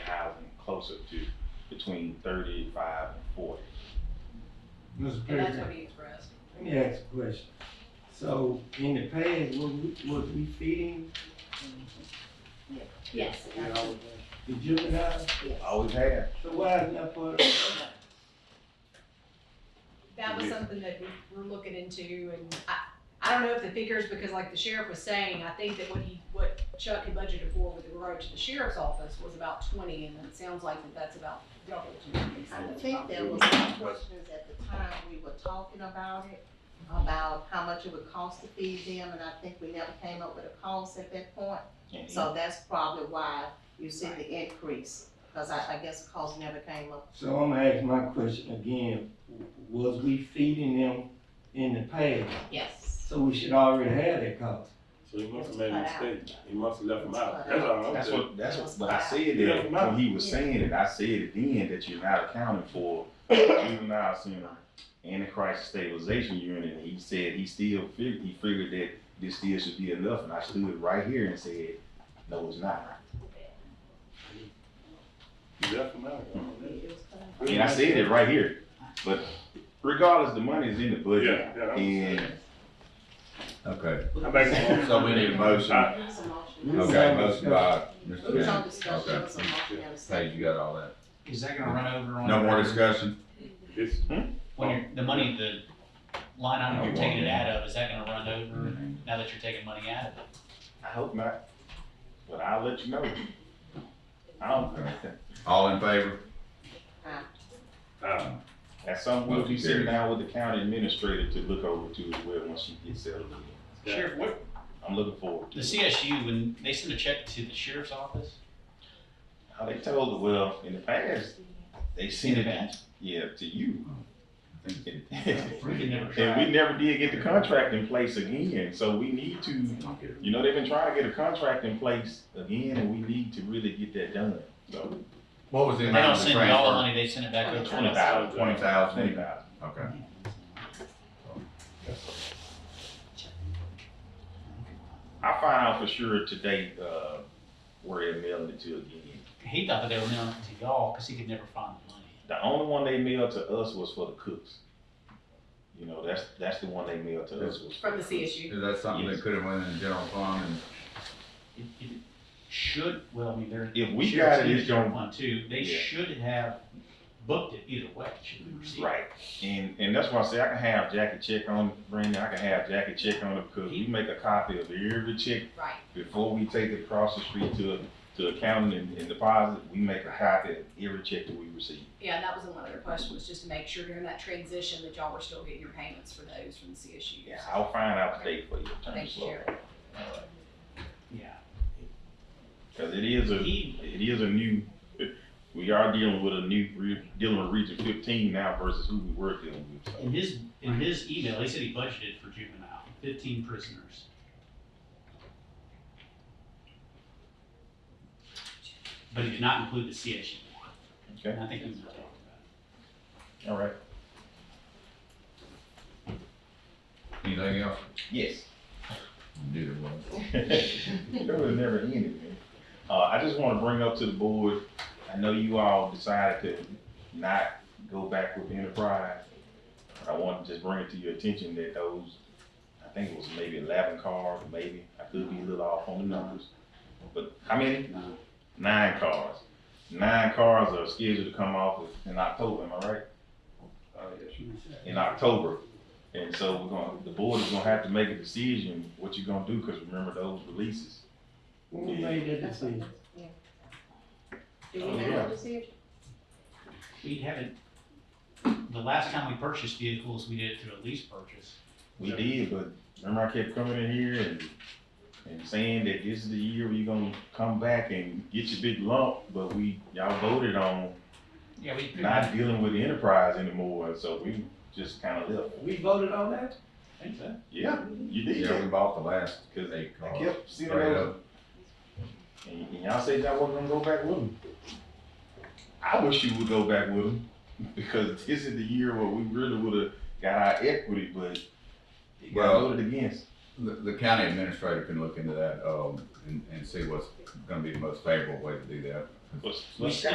closer to between thirty-five and forty. Mr. And that's Perry, what he expressed. let me ask a question. So in the past, was we, was we feeding Yes. that's- the juveniles? yes. Always have. So why is not part of? That was something that we were looking into and I, I don't know if the figures, because like the sheriff was saying, I think that what he, what Chuck had budgeted for with regard to the sheriff's office was about twenty and it sounds like that that's about double. to what they I said. think there was some questions at the time we were talking about it, about how much it would cost to feed them, and I think we never came up with a cost at that point. And he- So that's probably why you see the increase, because I, I guess the cost never came up. So I'm gonna ask my question again. Was we feeding them in the past? Yes. So we should already have that cost. So he must have made a mistake. He must have left him out. That's all I'm That's saying. what, that's what, but I said that, when he was saying it, I said it then, that you're not accounting for juvenile center and the crisis stabilization unit, and he said he still figured, he figured that this still should be enough, and I stood right here and said, no, it's not. He left him out. I don't know. It was cut out. And I said it right here, but regardless, the money is in the budget, Yeah, yeah. I'm saying. and Okay, I make a motion. so we need a motion. It was a motion. Okay, motion by Mr. It was on Gaines. discussion, it was a motion and a second. Paige, you got all that? Is that gonna run over on? No your- more discussion? It's, When you're, the money, the line item you're No, taking it well, out of, is that gonna run over now that you're taking money out of it? I hope not, but I'll let you know. I don't, All in favor? uh, at some point, you sitting down with the county administrator to look over to as well, once she gets settled in. Yeah. Sheriff, what, I'm looking forward to the it. CSU, when they send a check to the sheriff's office, How they told the well in the past, they sent it, yeah, to you. and we can never we try. never did get the contract in place again, so we need to, you know, they've been trying to get a contract in place again, and we need to really get that done. So What was the They don't amount of send the you all the transfer? money, they send it back over to twenty us. thousand, Twenty twenty thousand? thousand. Okay. I'll find out for sure today, uh, where they're mailing it to again. He thought that they were mailing it to y'all, cause he could never find the money. The only one they mailed to us was for the cooks. You know, that's, that's the one they mailed to us was. From the CSU. Is that something Yes. that could have went in the general fund and It, it should, well, I mean, they're. If we sheriff's got it, in the it's general gonna- fund too, they Yeah. should have booked it either way, should we receive it? Right, and, and that's why I say I can have Jackie check on, Brandon, I can have Jackie check on it, because we make a copy of every check Right. before we take it across the street to, to accounting and, and deposit, we make a copy of every check that we receive. Yeah, that was another question, was just to make sure during that transition that y'all were still getting your payments for those from the CSU. Yeah, I'll find out today for you, Attorney Thank you, Slover, Sheriff. Yeah. because it is a, He it is a new, we are dealing with a new, re- dealing with Region fifteen now versus who we were dealing with. so. In his, in his email, he said he budgeted for juvenile, fifteen prisoners. But he did not include the CSU. Okay. And I think he was talking about it. All right. anything else? Yes. Did it well. That would never ended, man. Uh, I just wanna bring up to the board, I know you all decided to not go back with Enterprise. I want to just bring it to your attention that those, I think it was maybe eleven cars, maybe, I could be a little off on the numbers. But how many? Nine. Nine cars. Nine cars are scheduled to come off in October, am I right? Oh, in October. And so we're gonna, the board is gonna have to make a decision what you're gonna do, because remember those releases. Who made that That's what- decision? yeah. Do we have to see it? We haven't, the last time we purchased vehicles, we did it through a lease purchase. We did, but remember I kept coming in here and, and saying that this is the year where you're gonna come back and get your big lump, but we, y'all voted on Yeah, we. not dealing with the enterprise anymore, and so we just kinda left. We voted on that? think so. Yeah, you Yeah, we did, bought the last because eight I cars. kept seeing Straight those, up. and and y'all said y'all wasn't gonna go back with them. I wish you would go back with them, because this is the year where we really would've got our equity, but it got Well- voted against. The, the county administrator can look into that, um, and, and see what's gonna be the most favorable way to do that. Let's- We let's-